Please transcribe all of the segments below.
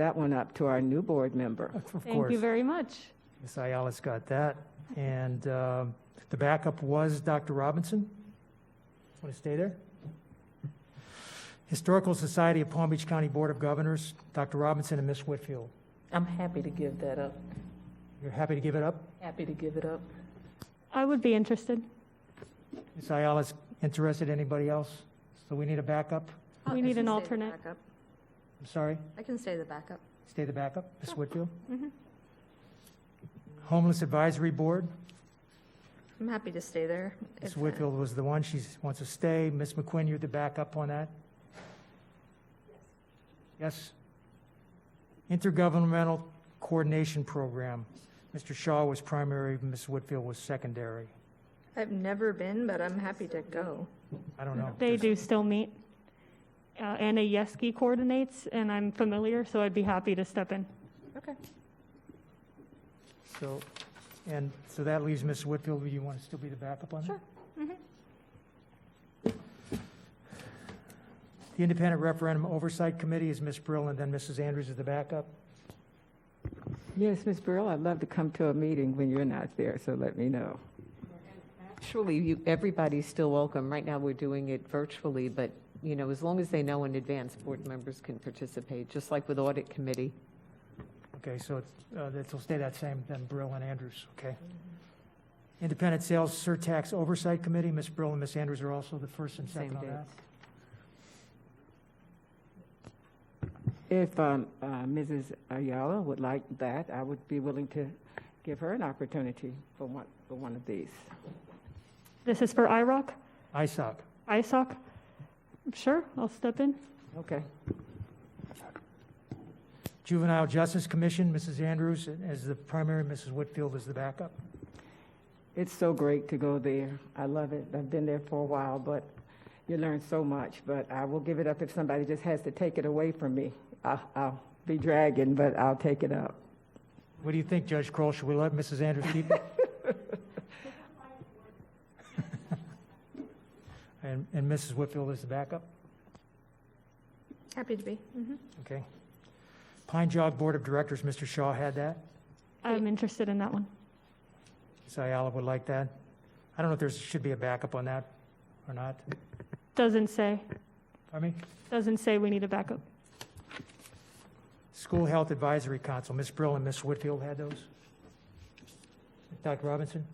that one up to our new board member. Of Thank course. you very much. Ms. Ayala's got that. And um, the backup was Dr. Robinson. Want to stay there? Historical Society of Palm Beach County Board of Governors, Dr. Robinson and Ms. Whitfield. I'm happy to give that up. You're happy to give it up? Happy to give it up. I would be interested. Ms. Ayala's interested, anybody else? So we need a backup? Oh, We need I can an stay the alternate. backup. I'm sorry, I can stay the backup. stay the backup, Ms. Whitfield? Mm-hmm. Homeless Advisory Board, I'm happy to stay there. Ms. if, uh, Whitfield was the one, she wants to stay. Ms. McQuinn, you're the backup on that? Yes? Intergovernmental Coordination Program. Mr. Shaw was primary, Ms. Whitfield was secondary. I've never been, but I'm happy to go. I don't know. They do still meet. Uh, Anna Yeski coordinates, and I'm familiar, so I'd be happy to step in. Okay. So, and so that leaves Ms. Whitfield, do you want to still be the backup on that? Sure. Mm-hmm. The Independent Referendum Oversight Committee is Ms. Brill, and then Mrs. Andrews is the backup. Yes, Ms. Burrell, I'd love to come to a meeting when you're not there, so let me know. Actually, you, everybody's still welcome. Right now, we're doing it virtually, but, you know, as long as they know in advance, board members can participate, just like with audit committee. Okay, so it's, uh, it'll stay that same, then Brill and Andrews, okay? Independent Sales Surtax Oversight Committee, Ms. Brill and Ms. Andrews are also the first and Same second on that. dates. If um, uh, Mrs. Ayala would like that, I would be willing to give her an opportunity for one, for one of these. This is for IROC, ISOC, ISOC. Sure, I'll step in. Okay. Juvenile Justice Commission, Mrs. Andrews as the primary, Mrs. Whitfield is the backup. It's so great to go there. I love it. I've been there for a while, but you learn so much. But I will give it up if somebody just has to take it away from me. I'll, I'll be dragging, but I'll take it up. What do you think, Judge Kroll? Should we let Mrs. Andrews keep it? And, and Mrs. Whitfield is the backup? Happy to be. Mhm. Okay. Pine Jog Board of Directors, Mr. Shaw had that. I'm interested in that one. Ms. Ayala would like that. I don't know if there should be a backup on that or not. Doesn't say, I mean, doesn't say we need a backup. School Health Advisory Council, Ms. Brill and Ms. Whitfield had those. Dr. Robinson?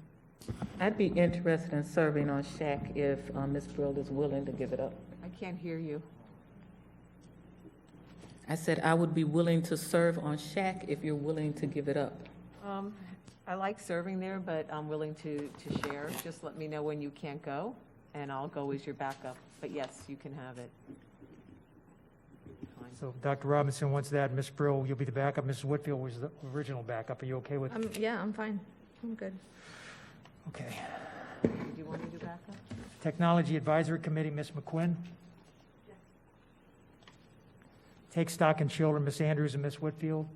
I'd be interested in serving on SHAC if uh, Ms. Brill is willing to give it up. I can't hear you. I said I would be willing to serve on SHAC if you're willing to give it up. Um, I like serving there, but I'm willing to, to share. Just let me know when you can't go, and I'll go as your backup. But yes, you can have it. So Dr. Robinson wants that. Ms. Brill, you'll be the backup. Mrs. Whitfield was the original backup. Are you okay with? Um, yeah, I'm fine. I'm good. Okay. Do you want me to back up? Technology Advisory Committee, Ms. McQuinn? Take Stock and Children, Ms. Andrews and Ms. Whitfield?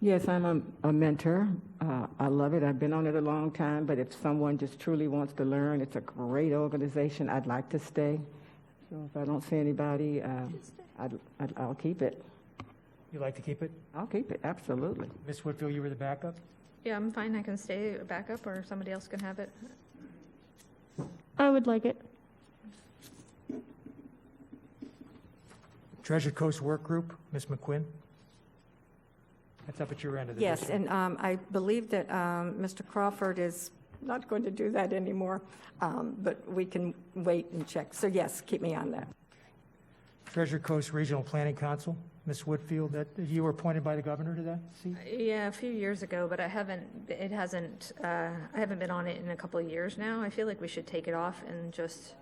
Yes, I'm a, a mentor. Uh, I love it. I've been on it a long time, but if someone just truly wants to learn, it's a great organization. I'd like to stay. So if I don't see anybody, uh, I'd, I'd, I'll keep it. You'd like to keep it? I'll keep it, absolutely. Ms. Whitfield, you were the backup? Yeah, I'm fine. I can stay backup or somebody else can have it. I would like it. Treasure Coast Work Group, Ms. McQuinn? That's up at your end of the Yes, district. and um, I believe that um, Mr. Crawford is not going to do that anymore, um, but we can wait and check. So yes, keep me on that. Treasure Coast Regional Planning Council, Ms. Whitfield, that, you were appointed by the governor to that seat? Yeah, a few years ago, but I haven't, it hasn't, uh, I haven't been on it in a couple of years now. I feel like we should take it off and just,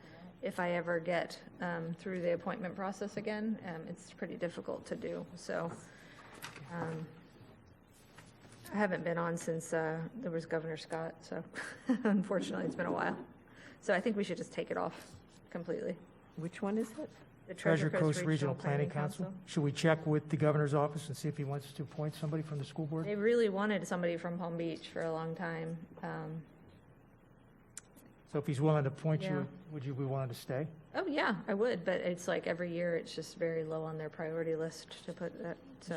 if I ever get um, through the appointment process again, um, it's pretty difficult to do, so. um, I haven't been on since uh, there was Governor Scott, so unfortunately, it's been a while. So I think we should just take it off completely. Which one is it? The Treasure Coast Regional Planning Council? Should we check with the governor's office and see if he wants to appoint somebody from the school board? They really wanted somebody from Palm Beach for a long time. um, So if he's willing to appoint Yeah. you, would you be willing to stay? Oh, yeah, I would, but it's like every year, it's just very low on their priority list to put that, so.